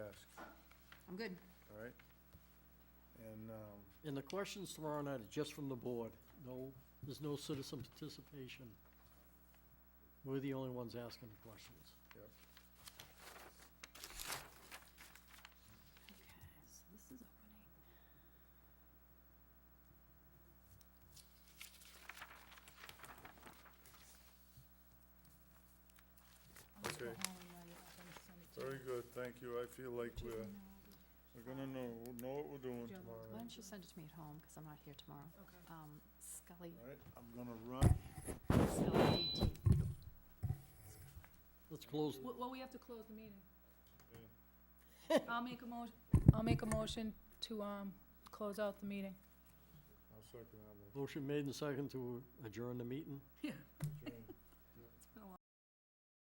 I'm good. all right? And, um, And the questions tomorrow night are just from the board. No, there's no citizen participation. We're the only ones asking the questions. Okay, so this is opening. I'll just go Okay. home and write it up and send it to very you. good, thank you, I feel like Do you we're, know- we're gonna know, we'll know what we're doing Do you have a- tomorrow Why night, don't you send it to me at home, because I'm not here tomorrow. Okay. Um, Scully, all right? I'm gonna run, Scully AT. Let's close, Well, well, we have to close the meeting. Yeah. I'll make a motion, I'll make a motion to, um, close out the meeting. I'll second that motion made and second to adjourn the meeting. one.